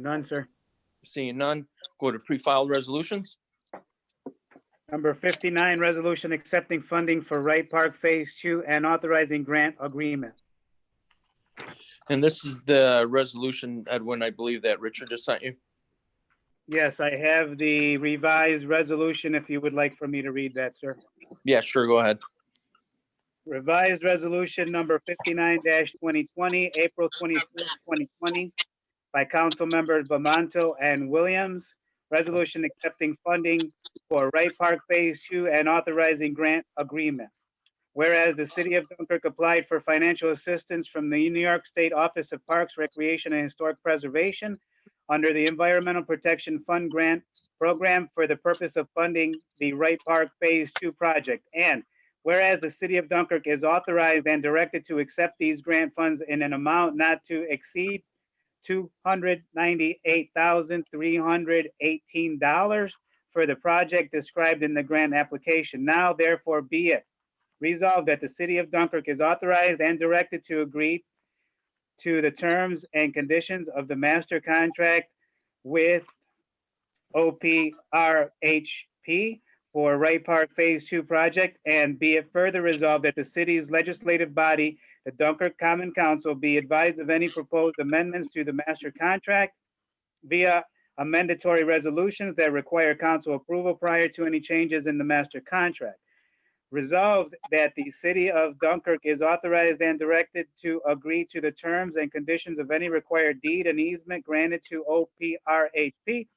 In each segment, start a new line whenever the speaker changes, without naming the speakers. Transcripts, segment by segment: None, sir.
Seeing none, go to pre-filed resolutions.
Number 59, resolution accepting funding for Wright Park Phase 2 and authorizing grant agreement.
And this is the resolution, Edwin, I believe that Richard just sent you.
Yes, I have the revised resolution if you would like for me to read that, sir.
Yeah, sure, go ahead.
Revised Resolution Number fifty-nine twenty twenty, April twenty-fifth, twenty twenty, by Council Members Bamanto and Williams. Resolution accepting funding for Wright Park Phase Two and authorizing grant agreement. Whereas the city of Dunkirk applied for financial assistance from the New York State Office of Parks, Recreation, and Historic Preservation under the Environmental Protection Fund Grant Program for the purpose of funding the Wright Park Phase Two project. And Whereas the city of Dunkirk is authorized and directed to accept these grant funds in an amount not to exceed two hundred ninety-eight thousand three hundred eighteen dollars for the project described in the grant application. Now therefore be it resolved that the city of Dunkirk is authorized and directed to agree to the terms and conditions of the master contract with OPRHP for Wright Park Phase Two project, and be it further resolved that the city's legislative body, the Dunkirk Common Council, be advised of any proposed amendments to the master contract via a mandatory resolutions that require council approval prior to any changes in the master contract. Resolved that the city of Dunkirk is authorized and directed to agree to the terms and conditions of any required deed and easement granted to OPRHP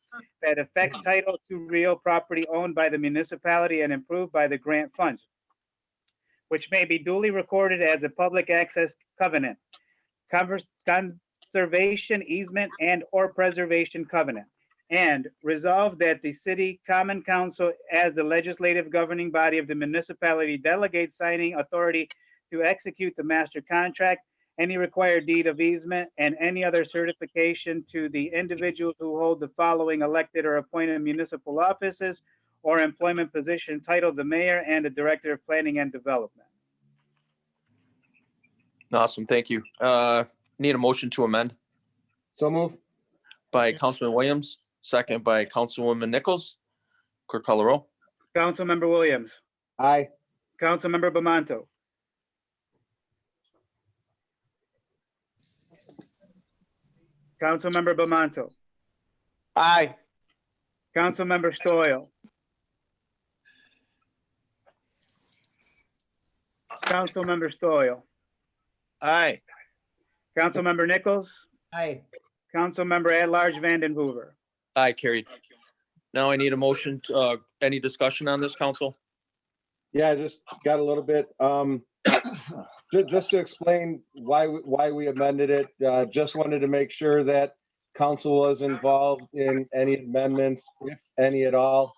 that affect title to real property owned by the municipality and improved by the grant funds, which may be duly recorded as a public access covenant, covers- conservation easement and/or preservation covenant. And resolve that the city common council, as the legislative governing body of the municipality, delegates signing authority to execute the master contract any required deed of easement, and any other certification to the individuals who hold the following elected or appointed municipal offices or employment position titled the mayor and the director of planning and development.
Awesome, thank you. Uh, Need a motion to amend
So move.
by Councilman Williams, second by Councilwoman Nichols. Clerk call the roll.
Councilmember Williams,
Aye.
Councilmember Bamanto, Councilmember Bamanto,
Aye.
Councilmember Stoyl. Councilmember Stoyl.
Aye.
Councilmember Nichols,
Aye.
Councilmember at-large Vanden Hoover.
Aye, carried. Now I need a motion, uh, any discussion on this, council?
Yeah, I just got a little bit, um, ju- just to explain why, we- why we amended it, uh, just wanted to make sure that council was involved in any amendments, if any at all.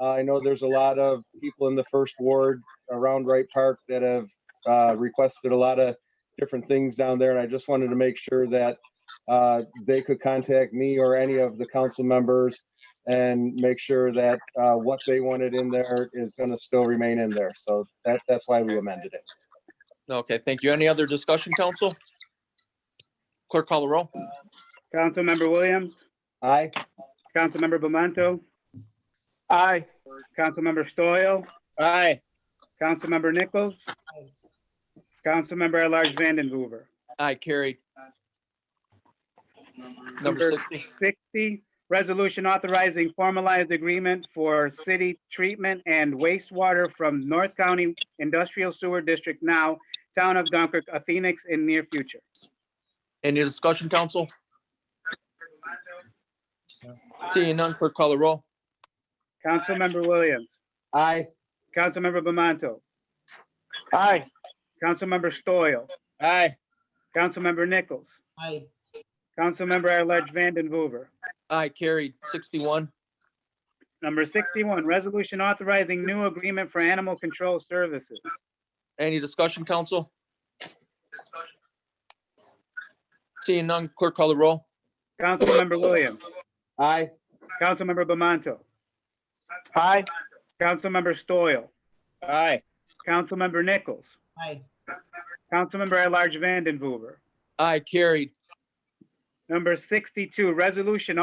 Uh, I know there's a lot of people in the first ward around Wright Park that have, uh, requested a lot of different things down there, and I just wanted to make sure that, uh, they could contact me or any of the council members and make sure that uh, what they wanted in there is going to still remain in there. So that, that's why we amended it.
Okay, thank you. Any other discussion, council? Clerk call the roll.
Councilmember Williams,
Aye?
Councilmember Bamanto. Aye. Councilmember Stoyl,
Aye.
Councilmember Nichols. Councilmember at-large Vanden Hoover.
Aye, carried. Number
Number
sixty,
sixty, resolution authorizing formalized agreement for city treatment and wastewater from North County Industrial Sewer District now, Town of Dunkirk, Phoenix in near future.
any discussion, council? Seeing none, clerk call the roll.
Councilmember Williams,
Aye?
Councilmember Bamanto.
Aye.
Councilmember Stoyl,
Aye.
Councilmember Nichols,
Aye,
Councilmember at-large Vanden Hoover.
Aye, carried. Sixty-one,
Number sixty-one, resolution authorizing new agreement for animal control services.
any discussion, council? Seeing none, clerk call the roll.
Councilmember Williams,
Aye?
Councilmember Bamanto. Aye. Councilmember Stoyl,
Aye.
Councilmember Nichols,
aye,
Councilmember at-large Vanden Hoover.
Aye, carried.
Number 62, resolution